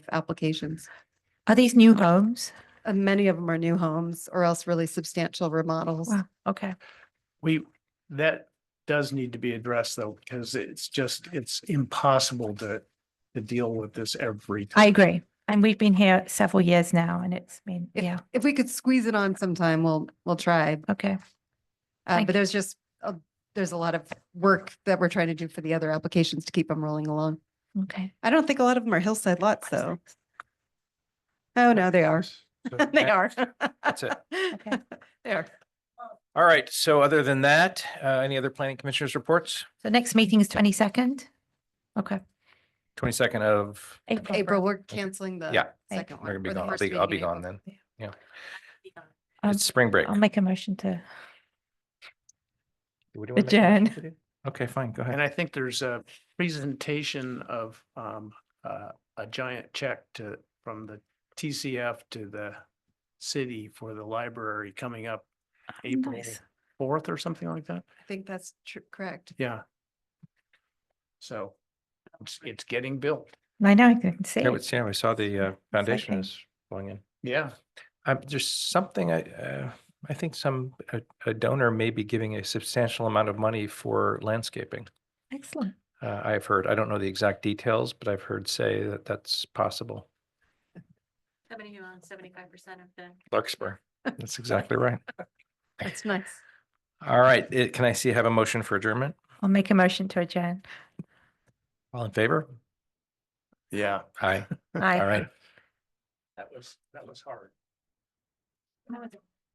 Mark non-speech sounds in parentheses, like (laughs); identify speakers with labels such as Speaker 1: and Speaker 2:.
Speaker 1: applications.
Speaker 2: Are these new homes?
Speaker 1: Uh, many of them are new homes or else really substantial remodels.
Speaker 2: Wow, okay.
Speaker 3: We, that does need to be addressed though, because it's just, it's impossible to, to deal with this every
Speaker 2: I
Speaker 3: time.
Speaker 2: agree. And we've been here several years now and it's been,
Speaker 1: If-
Speaker 2: yeah,
Speaker 1: If we could squeeze it on sometime, we'll, we'll try.
Speaker 2: okay.
Speaker 1: Uh,
Speaker 2: Thank
Speaker 1: but there's just, uh, there's a lot of work that we're trying to do for the other applications to keep them rolling along.
Speaker 2: Okay.
Speaker 1: I don't think a lot of them are hillside lots though. Oh, no, they are.
Speaker 4: So
Speaker 1: (laughs) They
Speaker 4: that-
Speaker 1: are.
Speaker 4: That's it.
Speaker 2: Okay.
Speaker 1: (laughs) They are.
Speaker 4: All right. So other than that, uh, any other planning commissioners reports?
Speaker 2: So next meeting is twenty-second? Okay.
Speaker 4: Twenty-second of,
Speaker 1: April, we're canceling the.
Speaker 4: Yeah.
Speaker 1: Second
Speaker 4: I'm gonna
Speaker 1: one.
Speaker 4: be
Speaker 1: or the
Speaker 4: gone. I'll
Speaker 1: first
Speaker 4: be, I'll
Speaker 1: meeting
Speaker 4: be
Speaker 1: in
Speaker 4: gone
Speaker 1: April.
Speaker 4: then.
Speaker 2: Um,
Speaker 4: It's spring break.
Speaker 2: I'll make a motion to,
Speaker 4: What do you wanna make a motion
Speaker 2: adjourn.
Speaker 4: to do? Okay, fine. Go
Speaker 3: And
Speaker 4: ahead.
Speaker 3: I think there's a presentation of, um, uh, a giant check to, from the TCF to the city for the library coming up April
Speaker 2: nice.
Speaker 3: fourth or something like that.
Speaker 1: I think that's true, correct.
Speaker 3: Yeah. So it's, it's getting built.
Speaker 2: I know, I can see.
Speaker 4: Yeah,
Speaker 2: it.
Speaker 4: it's- yeah, we saw the uh,
Speaker 2: Exciting.
Speaker 4: foundation is going in.
Speaker 3: Yeah.
Speaker 4: Um, there's something I, uh, I think some, a- a donor may be giving a substantial amount of money for landscaping.
Speaker 2: Excellent.
Speaker 4: Uh, I've heard, I don't know the exact details, but I've heard say that that's possible.
Speaker 5: Somebody who owns seventy-five percent of the
Speaker 4: Larkspur. That's exactly right.
Speaker 1: That's nice.
Speaker 4: All right. it- Can I see, have a motion for adjournment?
Speaker 2: I'll make a motion to adjourn.
Speaker 4: All in favor?
Speaker 3: Yeah.
Speaker 4: Aye.
Speaker 2: Aye.
Speaker 4: All right.
Speaker 3: That was, that was hard.